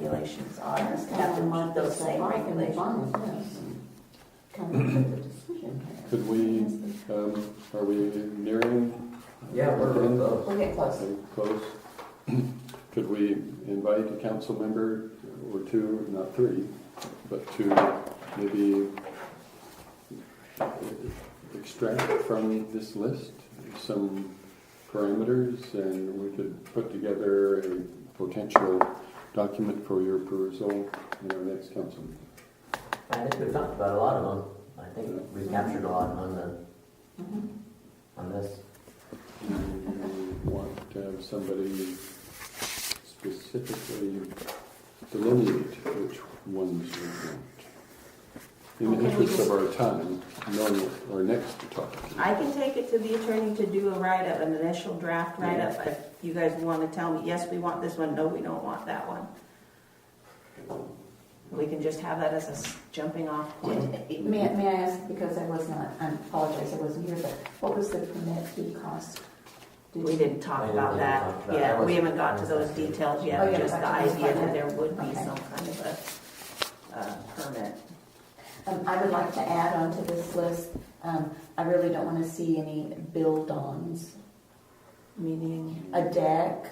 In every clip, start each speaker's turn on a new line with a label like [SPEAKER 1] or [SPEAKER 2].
[SPEAKER 1] regulations on us, have to meet those same regulations.
[SPEAKER 2] Could we, um, are we nearing?
[SPEAKER 3] Yeah, we're real close.
[SPEAKER 1] We'll get close.
[SPEAKER 2] Okay, Close. Could we invite a council member or two, not three, but two, maybe extract from this list some parameters and we could put together a potential document for your perusal in our next council. meeting.
[SPEAKER 3] I think we've talked about a lot of them. I think we've captured a lot on the,
[SPEAKER 4] Mm-hmm.
[SPEAKER 3] on this.
[SPEAKER 2] Do you want to have somebody specifically delineate which ones you want? In the
[SPEAKER 4] Okay, we
[SPEAKER 2] interest of our time, knowing what our next topic
[SPEAKER 4] I can take it to the attorney to do a write-up, an initial draft write-up, if you guys wanna tell me, yes, we want this one, no, we don't want that one. We can just have that as a s- jumping off point.
[SPEAKER 1] Did- May, may I ask, because I was not, I apologize, I wasn't here, but what was the permit fee cost? Did
[SPEAKER 4] We
[SPEAKER 1] you-
[SPEAKER 4] didn't talk about that,
[SPEAKER 3] We didn't talk about that.
[SPEAKER 4] yeah, we haven't got to those details
[SPEAKER 1] Oh,
[SPEAKER 4] yet,
[SPEAKER 1] yeah,
[SPEAKER 4] just the
[SPEAKER 1] I just
[SPEAKER 4] idea
[SPEAKER 1] thought
[SPEAKER 4] that
[SPEAKER 1] that.
[SPEAKER 4] there would be
[SPEAKER 1] Okay.
[SPEAKER 4] some kind of a, uh, permit.
[SPEAKER 1] Um, I would like to add on to this list, um, I really don't wanna see any build-ons,
[SPEAKER 4] Meaning,
[SPEAKER 1] a deck,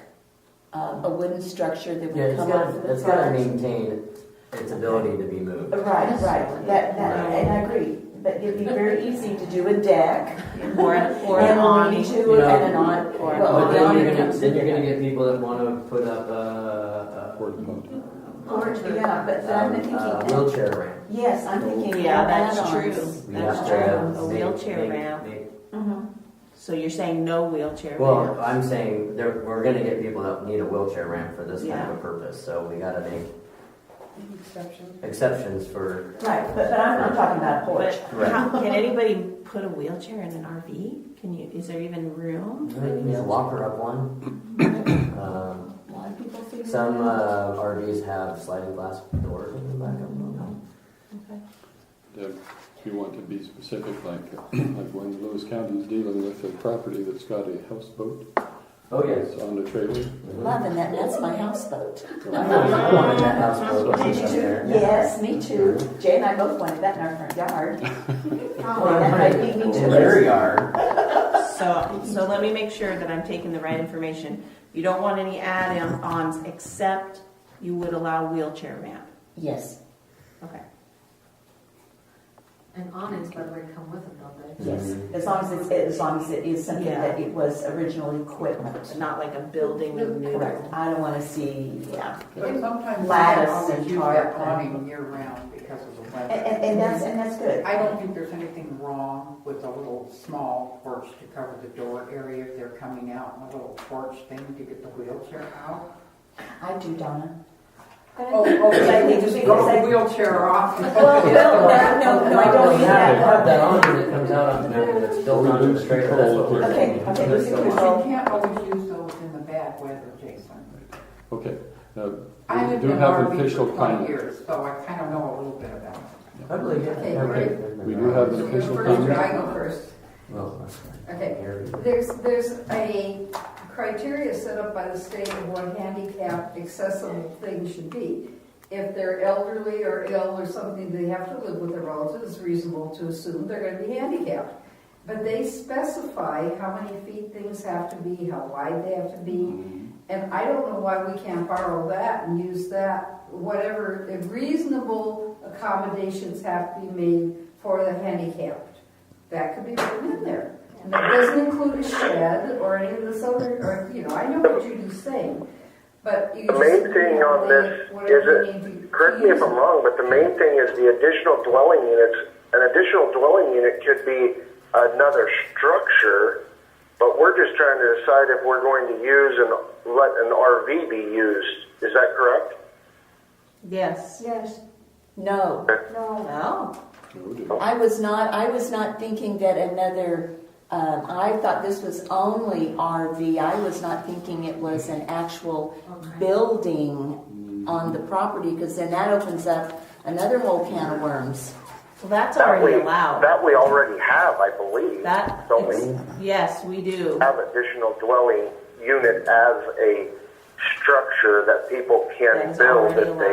[SPEAKER 1] um, a wooden structure that
[SPEAKER 3] Yeah,
[SPEAKER 1] would
[SPEAKER 3] it's
[SPEAKER 1] come up.
[SPEAKER 3] gotta, it's gotta maintain its ability to be moved.
[SPEAKER 1] Right, right, that, that, and I agree, but it'd be very easy to do a deck,
[SPEAKER 4] or, an- or an
[SPEAKER 1] and we'll
[SPEAKER 4] awning.
[SPEAKER 1] need to, and an on,
[SPEAKER 4] Or an
[SPEAKER 1] well,
[SPEAKER 3] But
[SPEAKER 1] an
[SPEAKER 3] then
[SPEAKER 1] awning
[SPEAKER 3] you're gonna,
[SPEAKER 1] comes
[SPEAKER 3] then you're
[SPEAKER 1] with
[SPEAKER 3] gonna
[SPEAKER 1] it.
[SPEAKER 3] get people that wanna put up a,
[SPEAKER 2] for the vote.
[SPEAKER 3] a.
[SPEAKER 1] Porch, yeah, but then I'm
[SPEAKER 3] um, a
[SPEAKER 1] thinking,
[SPEAKER 3] Wheelchair ramp.
[SPEAKER 1] yes, I'm thinking
[SPEAKER 4] Yeah, that's
[SPEAKER 1] add-ons.
[SPEAKER 4] true.
[SPEAKER 3] We
[SPEAKER 4] That's
[SPEAKER 3] have to
[SPEAKER 4] true.
[SPEAKER 3] have
[SPEAKER 4] A
[SPEAKER 3] make-
[SPEAKER 4] wheelchair
[SPEAKER 3] make-
[SPEAKER 4] ramp.
[SPEAKER 3] make-
[SPEAKER 1] Mhm.
[SPEAKER 4] So you're saying no wheelchair
[SPEAKER 3] Well,
[SPEAKER 4] ramp?
[SPEAKER 3] I'm saying there, we're gonna get people that need a wheelchair ramp for this kind
[SPEAKER 4] Yeah.
[SPEAKER 3] of a purpose, so we gotta make
[SPEAKER 5] Exception.
[SPEAKER 3] exceptions for,
[SPEAKER 1] Right, but, but I'm not talking about a
[SPEAKER 4] But
[SPEAKER 1] porch.
[SPEAKER 4] how, can anybody put a wheelchair in an RV? Can you, is there even room? for a
[SPEAKER 3] yeah, locker up one. Um,
[SPEAKER 1] A lot of people figure
[SPEAKER 3] Some
[SPEAKER 1] that out.
[SPEAKER 3] uh, RVs have sliding glass doors in the back of them.
[SPEAKER 4] Okay.
[SPEAKER 2] Deb, if you want to be specific, like, like when Lewis County's dealing with a property that's got a houseboat.
[SPEAKER 3] Oh, yes.
[SPEAKER 2] that's On the trailer.
[SPEAKER 1] Loving that, that's my houseboat.
[SPEAKER 3] I wanted that house built up
[SPEAKER 1] Did you
[SPEAKER 3] there.
[SPEAKER 1] too? Yes, me too. Jay and I both wanted that in our front yard. That might be me too.
[SPEAKER 3] There you are.
[SPEAKER 4] So, so let me make sure that I'm taking the right information. You don't want any add-ons except you would allow wheelchair ramp.
[SPEAKER 1] Yes,
[SPEAKER 4] Okay.
[SPEAKER 5] And awnings, by the way, come with them, don't they?
[SPEAKER 1] yes, as long as it's, as long as it is something
[SPEAKER 4] Yeah.
[SPEAKER 1] that it was original equipment.
[SPEAKER 4] Not like a building with new.
[SPEAKER 1] Correct, I don't wanna see, yeah.
[SPEAKER 5] But sometimes I
[SPEAKER 1] Lattice
[SPEAKER 5] always
[SPEAKER 1] and
[SPEAKER 5] use
[SPEAKER 1] tarp
[SPEAKER 5] that
[SPEAKER 1] and-
[SPEAKER 5] awning year round because of the
[SPEAKER 1] And,
[SPEAKER 5] weather.
[SPEAKER 1] and, and that's, and that's good.
[SPEAKER 5] I don't think there's anything wrong with a little small porch to cover the door area if they're coming out, and a little porch thing to get the wheelchair out.
[SPEAKER 1] I do, Donna.
[SPEAKER 5] Oh, oh,
[SPEAKER 1] I think
[SPEAKER 5] just
[SPEAKER 1] because
[SPEAKER 5] go
[SPEAKER 1] I-
[SPEAKER 5] the wheelchair off. and-
[SPEAKER 1] Well, well, no, no, no, I don't
[SPEAKER 3] Well,
[SPEAKER 1] mean
[SPEAKER 3] yeah,
[SPEAKER 1] that.
[SPEAKER 3] they have that on that comes out on there that's built
[SPEAKER 2] We
[SPEAKER 3] onto
[SPEAKER 2] lose
[SPEAKER 3] the trailer. That's what we're.
[SPEAKER 1] control of
[SPEAKER 3] thinking.
[SPEAKER 1] it. Okay, okay,
[SPEAKER 3] That's
[SPEAKER 1] we
[SPEAKER 3] the
[SPEAKER 1] can-
[SPEAKER 3] one.
[SPEAKER 5] But You can't always use those in the bad weather, Jason.
[SPEAKER 2] Okay. Uh,
[SPEAKER 5] I
[SPEAKER 2] we
[SPEAKER 5] lived
[SPEAKER 2] do
[SPEAKER 5] in an
[SPEAKER 2] have
[SPEAKER 5] RV
[SPEAKER 2] official
[SPEAKER 5] for twenty
[SPEAKER 2] comment.
[SPEAKER 5] years, so I kind of know a little bit about it.
[SPEAKER 3] I believe it.
[SPEAKER 6] Okay,
[SPEAKER 2] great. We do have
[SPEAKER 6] So
[SPEAKER 2] an
[SPEAKER 6] you're
[SPEAKER 2] official
[SPEAKER 6] first, or
[SPEAKER 2] comment.
[SPEAKER 6] I go first.
[SPEAKER 3] Well, that's fine.
[SPEAKER 6] Okay.
[SPEAKER 3] Here we go.
[SPEAKER 6] There's, there's a criteria set up by the state of what handicap accessible things should be. If they're elderly or ill or something, they have to live with their relatives, it's reasonable to assume they're gonna be handicapped. But they specify how many feet things have to be, how wide they have to be, and I don't know why we can't borrow that and use that, whatever, if reasonable accommodations have to be made for the handicapped. That could be written in there. And that doesn't include a shed or any of this other, or, you know, I know what Judy's saying, but you
[SPEAKER 7] The
[SPEAKER 6] just.
[SPEAKER 7] main thing on this
[SPEAKER 6] whatever
[SPEAKER 7] is
[SPEAKER 6] you need to-
[SPEAKER 7] Correct me if I'm wrong, but the main thing is the additional dwelling units. An additional dwelling unit could be another structure, but we're just trying to decide if we're going to use and let an RV be used. Is that correct?
[SPEAKER 4] Yes.
[SPEAKER 1] Yes. No,
[SPEAKER 4] Oh,
[SPEAKER 2] Oh, dear.
[SPEAKER 1] I was not, I was not thinking that another, um, I thought this was only RV. I was not thinking it was an actual building on the property, because then that opens up another whole can of worms.
[SPEAKER 4] well, that's
[SPEAKER 7] That we,
[SPEAKER 4] already allowed.
[SPEAKER 7] that we already have, I believe.
[SPEAKER 4] That,
[SPEAKER 7] Don't we
[SPEAKER 4] yes, we do.
[SPEAKER 7] have additional dwelling unit as a
[SPEAKER 4] structure that people
[SPEAKER 7] That
[SPEAKER 4] can
[SPEAKER 7] is
[SPEAKER 4] build
[SPEAKER 7] already
[SPEAKER 4] if they